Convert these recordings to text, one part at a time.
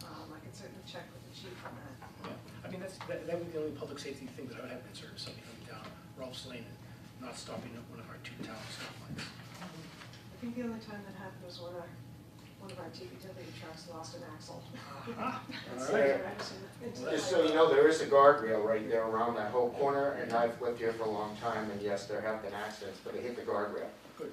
Um, shit from that. Yeah, I mean, that's, that, that would be the only public safety thing that I would have concern, is something coming down Ralph's Lane and not stopping at one of our two town stop lights. I think the only time that happened was when our, one of our TPW trucks lost an axle. Aha, That's all right. it, I was in- into Well, Just that. so you know, there is a guardrail right there around that whole corner, and I've lived here for a long time, and yes, there have been accidents, but it hit the guardrail. Good.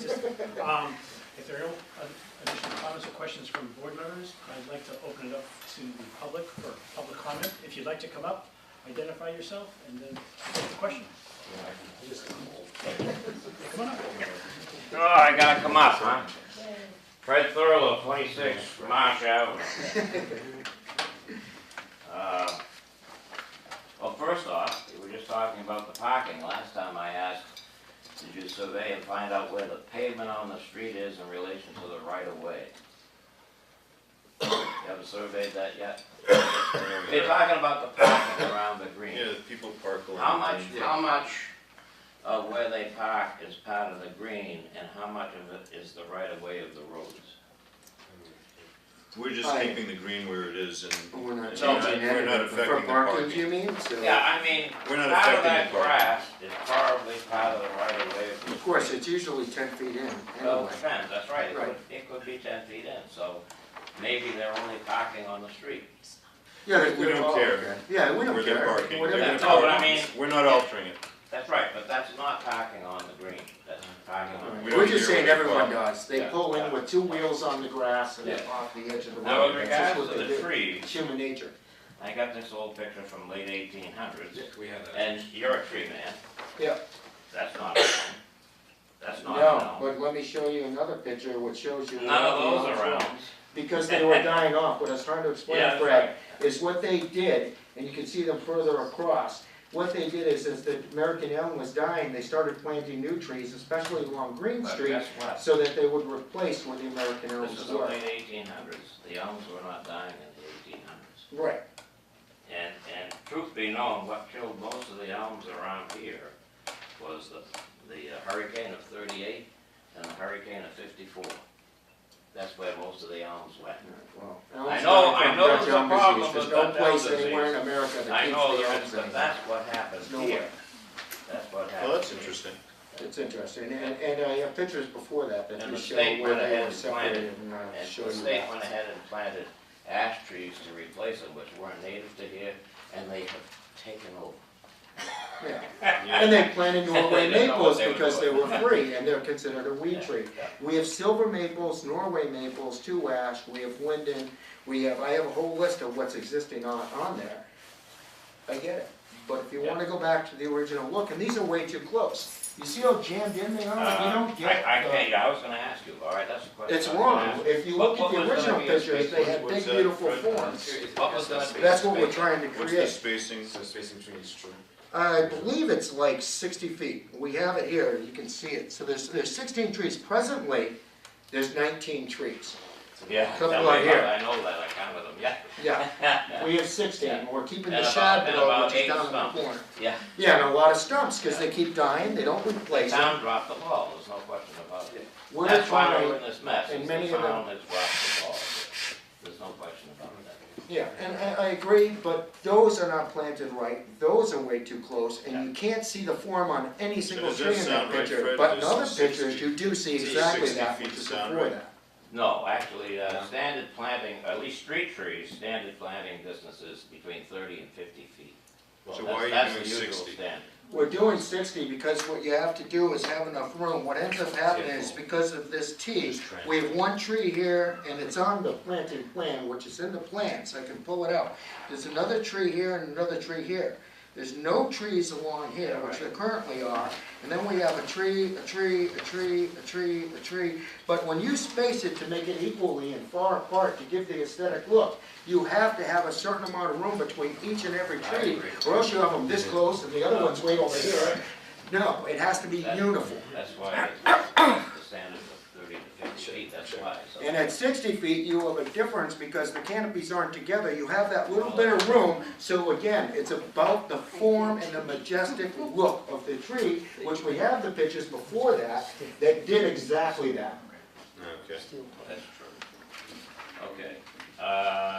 Just- just, um, If there are no oth- additional comments or questions from board members, I'd like to open it up to the public for public comment. If you'd like to come up, identify yourself, and then take the question. Yeah, Come on up. Oh, I gotta come up, huh? Fred Thurlow, twenty-six, Marsh Avenue. Uh, Well, first off, we were just talking about the parking. Last time I asked, did you survey and find out where the pavement on the street is in relation to the right-of-way? You haven't surveyed that yet? You're talking about the parking around the green. Yeah, people park along. How much, how much of where they park is part of the green, and how much of it is the right of way of the roads? We're just Hi. keeping the green where it is and. But We're not and No, changing We're not anything for affecting the parking, do you parking. mean? So- Yeah, I mean, We're not part of that affecting the grass is probably part of the right of way of the. Of course, it's usually ten feet in, Well, anyway. it depends, that's right, it Right. could, it could be ten feet in, so maybe they're only parking on the street. Yeah, We they're- don't oh, care okay. Yeah, we Where don't they're care. parking. Whatever They're they gonna- park. No, but I mean- We're not altering it. That's right, but that's not parking on the green, that's parking on the. We We're don't just care saying what they everyone park. does. They Yeah. pull in with two wheels on the grass and Yeah. off the edge of the road. Now, That's with just regards what to they the do. trees, It's human nature. I got this old picture from late eighteen hundreds, We had a, and you're a tree man, Yeah. That's not, a mound. that's not a No, mound. but let me show you another picture which shows you. None of what the those lawns are were. rounds. Because they were dying off, what I was trying to explain, Yeah, Fred, is what they did, and you can see them further across, what they did is, as the American elm was dying, they started planting new trees, especially along Green But Street, guess what? so that they would replace where the American This is elms the were. late eighteen hundreds. The elms were not dying in the eighteen hundreds. Right, And, and truth be known, what killed most of the elms around here was the, the uh, hurricane of thirty-eight and the hurricane of fifty-four. That's where most of the elms went. well. I elms know- die I from know Dutch there's a elm problem disease. with Dutch elm There's no place disease. anywhere in America that I keeps know, the there elms is, but anymore. that's what happens No here. way. That's what happens. Well, that's interesting. It's interesting, and, and I have pictures before that that And just the show state where went ahead they were and planted separated, and I'll And show the you state went that. ahead and planted ash trees to replace them, which weren't native to here, and they have taken over. Yeah. Yeah. And they planted Norway They didn't know what maples they were because they were doing. free and they're considered a weed Yeah, tree. yeah. We have silver maples, Norway maples, two ash, we have linden, we have, I have a whole list of what's existing on, on there. I get it, but if you wanna go back to the original look, and these are way too close, you see how jammed in they are, you Uh, don't get I, I the- can't, I was gonna ask you, all right, that's a question. It's I was gonna wrong, ask. if you What- look at what the was gonna original be the pictures, they space? had big What's that, beautiful Fred? forms. What was that? That's what we're trying to What's the create. spacing? so spacing between each tree. I believe it's like sixty feet. We have it here, you can see it. So there's, there's sixteen trees. Presently, there's nineteen trees. Yeah, Couple tell me right about here. it. I know that, I counted them, yeah. Yeah, we have sixteen. We're keeping the And about- shad and below, about which is eight down in the stumps. corner. Yeah, Yeah, and a lot of stumps, because they keep dying, they don't replace them. town dropped the ball, there's no question about it. We're That's why we're trying, in this mess, and is the many town of has them- dropped the ball. There's no question about that. yeah, and I, I agree, but those are not planted right. Those are way too close, Yeah. and you can't see the form on any single does that tree in that sound right, picture. Fred? But in Does other 60 pictures, you do see does exactly 60 that, feet which is sound before right? that. No, actually, uh, No. standard planting, at least street trees, standard planting distances between thirty and fifty feet. So That's- why are you that's doing the usual sixty? standard. We're doing sixty because what you have to do is have enough room. What ends up happening is because of this T, we have one tree here and it's on the planting plan, which is in the plans, I can pull it out. There's another tree here and another tree here. There's no trees along here, which there currently are, and then we have a tree, a tree, a tree, a tree, a tree. But when you space it to make it equally and far apart to give the aesthetic look, you have to have a certain amount of room between each and every tree. Or else you have them this close and the other one's way over here. No, it has to be That- uniform. That's why it's the standard of thirty to fifty feet, that's why. so- And at sixty feet, you have a difference because the canopies aren't together, you have that little bit of room. So again, it's about the form and the majestic look of the tree, which we have the pictures before that, that did exactly that. Okay. That's true. Okay, uh,